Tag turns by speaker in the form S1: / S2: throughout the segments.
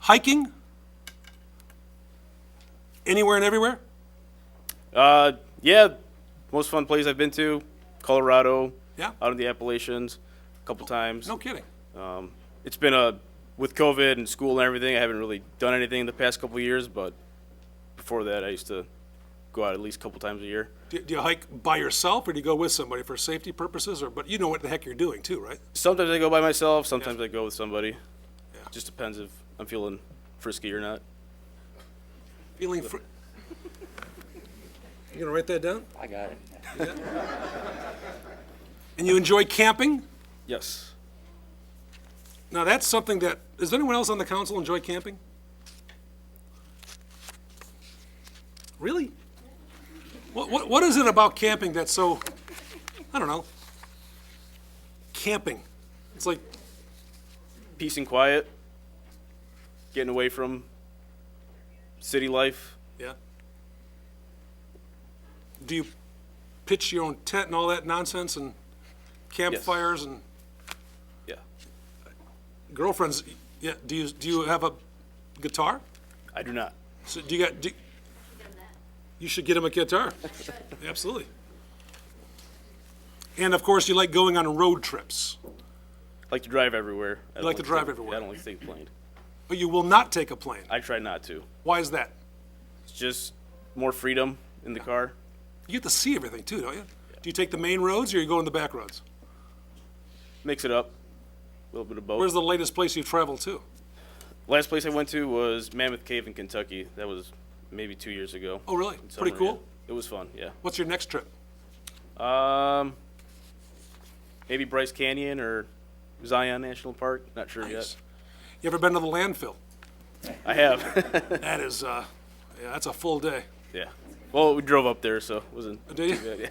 S1: Hiking? Anywhere and everywhere?
S2: Uh, yeah, most fun place I've been to, Colorado,
S1: Yeah?
S2: out in the Appalachians, a couple times. Um,
S1: No kidding.
S2: It's been a with COVID and school and everything. I haven't really done anything in the past couple years, but before that, I used to go out at least a couple times a year.
S1: Do, do you hike by yourself or do you go with somebody for safety purposes? Or, but you know what the heck you're doing too, right?
S2: Sometimes I go by myself. Sometimes I go with somebody. Just depends if I'm feeling frisky or not.
S1: Feeling fr- You gonna write that down?
S3: I got it.
S1: And you enjoy camping?
S2: Yes.
S1: Now, that's something that, does anyone else on the council enjoy camping? Really? What, what, what is it about camping that's so, I don't know, camping? It's like,
S2: Peace and quiet. Getting away from city life.
S1: yeah. Do you pitch your own tent and all that nonsense and campfires and
S2: Yeah.
S1: girlfriends? Yeah, do you, do you have a guitar?
S2: I do not.
S1: So do you got? Do, you should get him a guitar. Absolutely. And of course, you like going on road trips,
S2: I like to drive everywhere. I don't
S1: like to drive
S2: take-
S1: everywhere.
S2: I don't like to take the plane.
S1: but you will not take a plane.
S2: I try not to.
S1: Why is that?
S2: It's just more freedom in the car.
S1: You get to see everything too, don't you? Do you take the main roads or you go in the back roads?
S2: Mix it up. A little bit of both.
S1: Where's the latest place you've traveled to?
S2: Last place I went to was Mammoth Cave in Kentucky. That was maybe two years ago.
S1: Oh, really?
S2: In
S1: Pretty
S2: summer,
S1: cool.
S2: yeah. It was fun. Yeah.
S1: What's your next trip?
S2: Um, maybe Bryce Canyon or Zion National Park. Not sure
S1: Yes. You ever been to the landfill?
S2: yet. I have.
S1: That is, uh, yeah, that's a full day.
S2: yeah. Well, we drove up there, so it wasn't.
S1: Do you?
S2: Yeah. Yeah.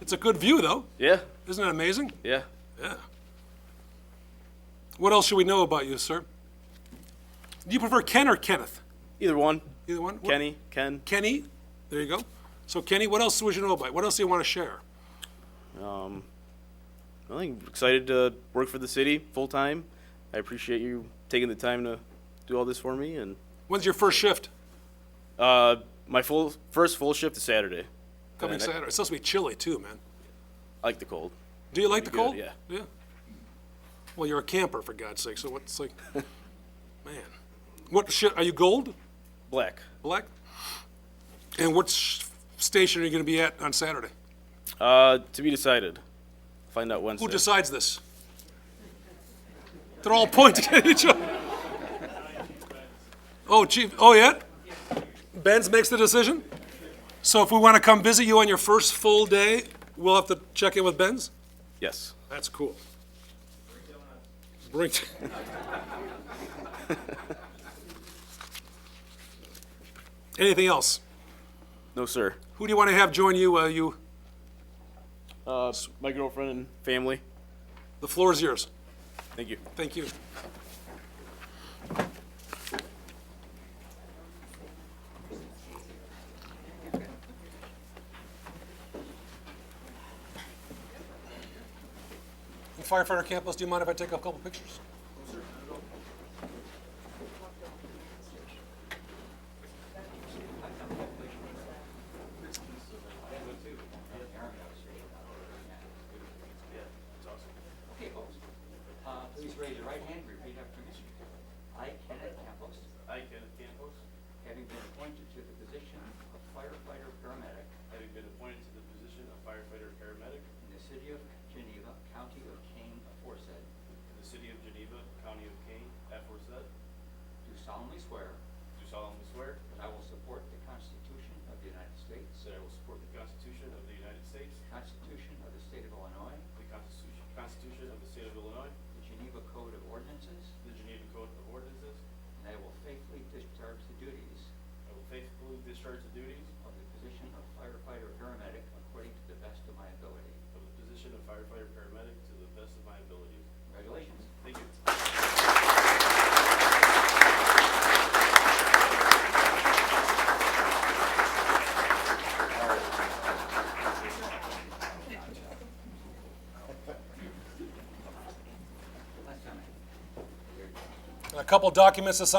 S1: It's a good view though.
S2: Yeah.
S1: Isn't it amazing?
S2: yeah.
S1: Yeah. What else should we know about you, sir? Do you prefer Ken or Kenneth?
S2: Either one.
S1: Either one? What-
S2: Kenny. Ken.
S1: Kenny. There you go. So, Kenny, what else would you know about? What else do you want to share?
S2: Um, I think excited to work for the city full time. I appreciate you taking the time to do all this for me. And
S1: When's your first shift?
S2: uh, my full first full shift is Saturday.
S1: Coming
S2: And I-
S1: Saturday. It's supposed to be chilly, too, man.
S2: I like the cold.
S1: Do you like the
S2: Pretty
S1: cold?
S2: good,
S1: Yeah. Well, you're a camper, for God's sake, so what's like, man. What shi are you gold?
S2: Black.
S1: Black? And what sh- station are you going to be at on Saturday?
S2: Uh, to be decided. Find out Wednesday.
S1: Who decides this? They're all pointing at each other. Oh, chief, oh, yeah? Benz makes the decision? So if we want to come visit you on your first full day, we'll have to check in with Benz?
S2: yes.
S1: That's cool. Bring. Anything else?
S2: No, sir.
S1: Who do you want to have join you, uh, you,
S2: Uh, my girlfriend and family.
S1: the floor is yours.
S2: Thank you.
S1: Thank you. Firefighter Campos, do you mind if I take a couple pictures?
S3: Okay, folks. Uh, please raise your right hand and repeat after me. I, Kenneth Campos,
S2: I, Kenneth Campos,
S3: having been appointed to the position of firefighter paramedic
S2: having been appointed to the position of firefighter paramedic
S3: in the city of Geneva, county of Kane aforesaid,
S2: in the city of Geneva, county of Kane, aforesaid,
S3: do solemnly swear
S2: do solemnly swear
S3: that I will support the Constitution of the United States,
S2: that I will support the Constitution of the United States,
S3: the Constitution of the state of Illinois,
S2: the Constitution, Constitution of the state of Illinois,
S3: the Geneva Code of Ordinances,
S2: the Geneva Code of Ordinances.
S3: and I will faithfully discharge the duties
S2: I will faithfully discharge the duties
S3: of the position of firefighter paramedic according to the best of my ability.
S2: of the position of firefighter paramedic to the best of my ability.
S3: Congratulations.
S2: Thank you.
S3: Last time I-
S1: A couple documents to sign